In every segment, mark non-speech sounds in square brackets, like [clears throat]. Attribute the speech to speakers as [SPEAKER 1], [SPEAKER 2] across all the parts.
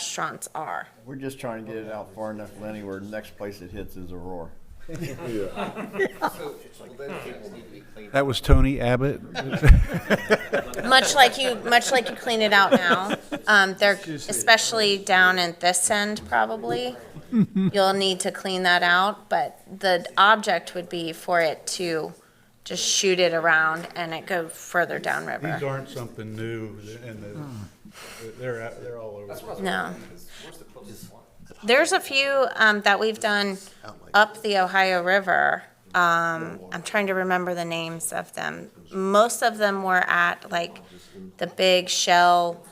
[SPEAKER 1] restaurants are.
[SPEAKER 2] We're just trying to get it out far enough, Lenny, where the next place it hits is Aurora.
[SPEAKER 3] So, well, then people need to be cleaned
[SPEAKER 4] That was Tony Abbott.
[SPEAKER 1] Much like you, much like you clean it out now, um, they're, especially down at this end probably. You'll need to clean that out, but the object would be for it to just shoot it around and it go further
[SPEAKER 4] These
[SPEAKER 1] downriver.
[SPEAKER 4] aren't something new, and the- they're, out- they're all over.
[SPEAKER 1] No.
[SPEAKER 3] Where's the closest one?
[SPEAKER 1] There's a few, um, that we've done up the Ohio River. Um, I'm trying to remember the names of them. Most of them were at like the big shell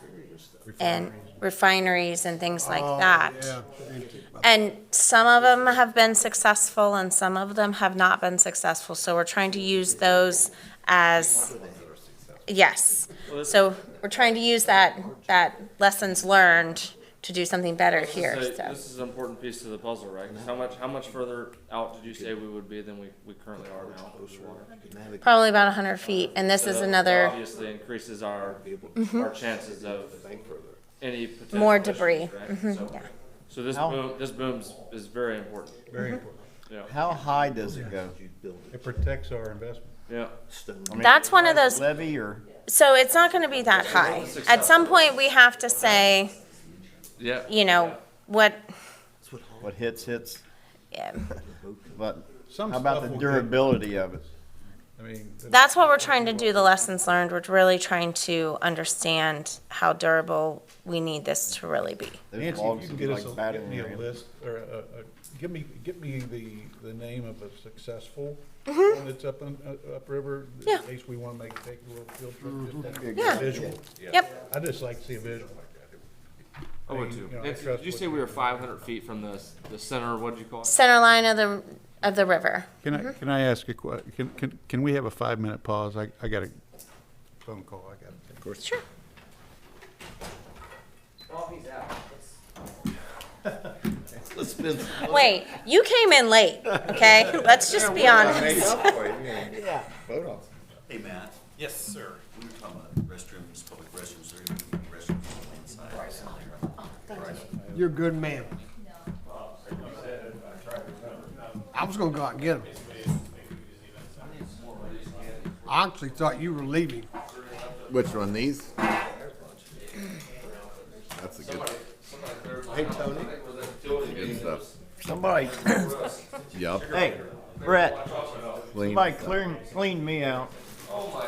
[SPEAKER 1] and refineries and things like that. And some of them have been successful and some of them have not been successful. So we're trying to use those as, yes. So we're trying to use that, that lessons learned to do something better here,
[SPEAKER 5] This is a-
[SPEAKER 1] so.
[SPEAKER 5] This is an important piece to the puzzle, right? 'Cause How much, how much further out did you say we would be than we, we currently are now?
[SPEAKER 1] Probably about 100 feet, and this is
[SPEAKER 5] That
[SPEAKER 1] another, Mm-hmm.
[SPEAKER 5] Obviously increases our, our chances of any potential.
[SPEAKER 1] More
[SPEAKER 5] issues,
[SPEAKER 1] debris.
[SPEAKER 5] right?
[SPEAKER 1] Mhm,
[SPEAKER 5] So-
[SPEAKER 1] yeah.
[SPEAKER 5] So this
[SPEAKER 2] How-
[SPEAKER 5] boom, this boom's, is very important,
[SPEAKER 4] Very important.
[SPEAKER 2] How high does it go?
[SPEAKER 4] It protects our investment.
[SPEAKER 5] yeah.
[SPEAKER 1] that's one of those,
[SPEAKER 2] Levy or,
[SPEAKER 1] so it's not going to be that high. At some point, we have to say,
[SPEAKER 5] Yeah.
[SPEAKER 1] you know, what,
[SPEAKER 2] what hits, hits,
[SPEAKER 1] yeah.
[SPEAKER 2] but
[SPEAKER 4] Some
[SPEAKER 2] how about
[SPEAKER 4] stuff
[SPEAKER 2] the
[SPEAKER 4] will get-
[SPEAKER 2] durability of it?
[SPEAKER 4] I mean, the-
[SPEAKER 1] that's what we're trying to do, the lessons learned. We're really trying to understand how durable we need this to really be.
[SPEAKER 2] Those
[SPEAKER 4] Nancy, if
[SPEAKER 2] logs
[SPEAKER 4] you can
[SPEAKER 2] are
[SPEAKER 4] get us,
[SPEAKER 2] like
[SPEAKER 4] a- get
[SPEAKER 2] battering
[SPEAKER 4] me a
[SPEAKER 2] ram.
[SPEAKER 4] list, or a, a, give me, give me the, the name of a successful one that's up, in- uh, upriver.
[SPEAKER 1] Mm-hmm. Yeah.
[SPEAKER 4] In case we wanna make, take a little field trip, just
[SPEAKER 2] That'd be a
[SPEAKER 1] Yeah.
[SPEAKER 2] good idea.
[SPEAKER 4] visual.
[SPEAKER 1] Yep,
[SPEAKER 4] I just like to see a visual.
[SPEAKER 5] I would too.
[SPEAKER 4] You know, I
[SPEAKER 5] And Did
[SPEAKER 4] trust
[SPEAKER 5] you
[SPEAKER 4] what
[SPEAKER 5] say
[SPEAKER 4] you-
[SPEAKER 5] we were five hundred feet from the, s- the center, what'd you call it?
[SPEAKER 1] center line of the, of the river.
[SPEAKER 4] Can I, can I ask a que, can, can, can we have a five-minute pause? I, I got a phone call, I got to take.
[SPEAKER 1] Sure. Wait, you came in late, okay? Let's just be honest.
[SPEAKER 6] Hey, Matt. Yes, sir. We were talking about restrooms, public restrooms, they're gonna be restrooms on the inside.
[SPEAKER 7] You're a good man. I was gonna go out and get him. I actually thought you were leaving.
[SPEAKER 8] Which one, these? That's a good. Hey, Tony. Good stuff.
[SPEAKER 2] Somebody, [coughs]
[SPEAKER 8] Yup.
[SPEAKER 2] hey, Brett,
[SPEAKER 8] Clean.
[SPEAKER 2] somebody clean, clean me out.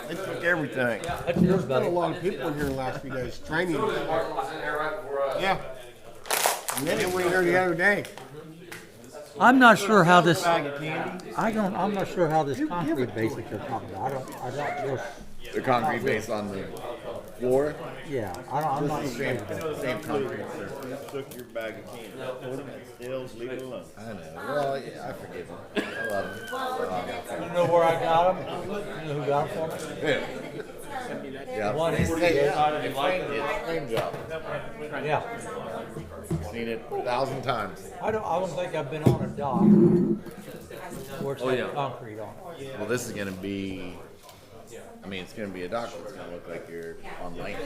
[SPEAKER 2] They took everything.
[SPEAKER 7] There's been a lot of people here in the last few days, training. Yeah. And then we were here the other day.
[SPEAKER 9] I'm not sure how this,
[SPEAKER 2] Bag of candy.
[SPEAKER 9] I don't, I'm not sure how this concrete base that you're talking about, I don't, I don't, really-
[SPEAKER 8] The concrete base on the floor,
[SPEAKER 9] yeah, I don't, I'm not sure.
[SPEAKER 8] same concrete.
[SPEAKER 2] Took your bag of candy. Stills, leave it alone.
[SPEAKER 8] I know, well, yeah, I forgive him. I love him.
[SPEAKER 9] You know where I got them? You know who got them for me?
[SPEAKER 8] Yeah.
[SPEAKER 9] One is
[SPEAKER 8] Hey, yeah, Same job.
[SPEAKER 9] Yeah,
[SPEAKER 8] Seen it a thousand times.
[SPEAKER 9] I don't, I don't think I've been on a dock where it's
[SPEAKER 5] Oh, yeah.
[SPEAKER 9] got concrete on it.
[SPEAKER 8] Well, this is gonna be, I mean, it's gonna be a dock, it's gonna look like you're on land.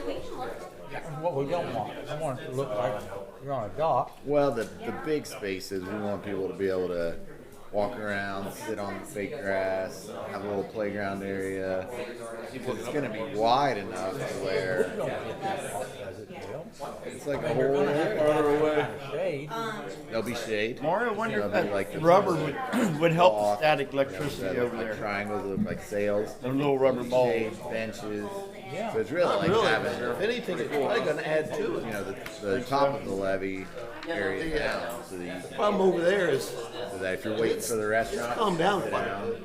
[SPEAKER 9] And What we don't want, I want it to look like you're on a dock,
[SPEAKER 8] Well, the, the big space is we want people to be able to walk around, sit on the fake grass, have a little playground area. 'Cause It's gonna be wide enough to where
[SPEAKER 9] as it will.
[SPEAKER 8] it's like a whole area.
[SPEAKER 9] Shade,
[SPEAKER 8] There'll be shade.
[SPEAKER 2] Mario, I wonder if
[SPEAKER 8] There'll be like
[SPEAKER 2] that
[SPEAKER 8] the
[SPEAKER 2] rubber would, [clears throat] would help the
[SPEAKER 8] walk,
[SPEAKER 2] static
[SPEAKER 8] you know,
[SPEAKER 2] electricity
[SPEAKER 8] that look
[SPEAKER 2] over
[SPEAKER 8] like
[SPEAKER 2] there.
[SPEAKER 8] triangles, that look like sails.
[SPEAKER 2] Those little rubber balls.
[SPEAKER 8] Shade, benches. So it's really like having, if anything, it's probably gonna add to it, you know, the, the top of the levee area down so that you can
[SPEAKER 7] Problem over there is,
[SPEAKER 8] So that if you're waiting for the restaurant,
[SPEAKER 7] Calm down.
[SPEAKER 8] sit down.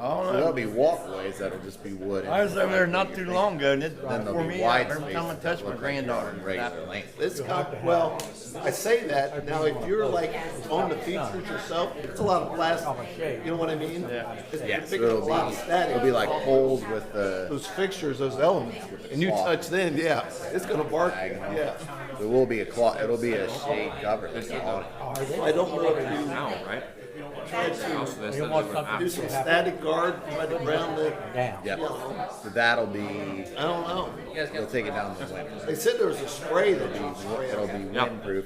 [SPEAKER 8] So there'll be walkways that'll just be wood.
[SPEAKER 2] I was over there not too long ago, and it,
[SPEAKER 8] Then
[SPEAKER 2] for
[SPEAKER 8] there'll be
[SPEAKER 2] me,
[SPEAKER 8] wide
[SPEAKER 2] every
[SPEAKER 8] spaces
[SPEAKER 2] time I
[SPEAKER 8] that
[SPEAKER 2] touch my
[SPEAKER 8] look like they're on
[SPEAKER 2] granddaughter,
[SPEAKER 8] Regular length.
[SPEAKER 10] It's got, well, I say that, now if you're like on the features yourself, it's a lot of plastic, you know what I mean? It's
[SPEAKER 8] Yeah,
[SPEAKER 10] it's
[SPEAKER 8] so
[SPEAKER 10] picking up a
[SPEAKER 8] it'll
[SPEAKER 10] lot
[SPEAKER 8] be,
[SPEAKER 10] of
[SPEAKER 8] it'll be
[SPEAKER 10] static.
[SPEAKER 8] like poles with the,
[SPEAKER 10] Those fixtures, those elements, and you touch them, yeah, it's gonna bark, yeah.
[SPEAKER 8] There will be a cloth. It'll be a shade cover on it.
[SPEAKER 2] I don't know if you
[SPEAKER 11] Now, right? House, that's-
[SPEAKER 9] You
[SPEAKER 11] that's
[SPEAKER 9] want
[SPEAKER 11] different.
[SPEAKER 9] something
[SPEAKER 2] do
[SPEAKER 11] Ah.
[SPEAKER 2] some static guard right around the,
[SPEAKER 9] down.
[SPEAKER 8] Yep. So that'll be.
[SPEAKER 2] I don't know.
[SPEAKER 8] They'll take it down in the winter.
[SPEAKER 2] They said there was a spray that you spray.
[SPEAKER 8] It'll be
[SPEAKER 11] Yep.
[SPEAKER 8] windproof.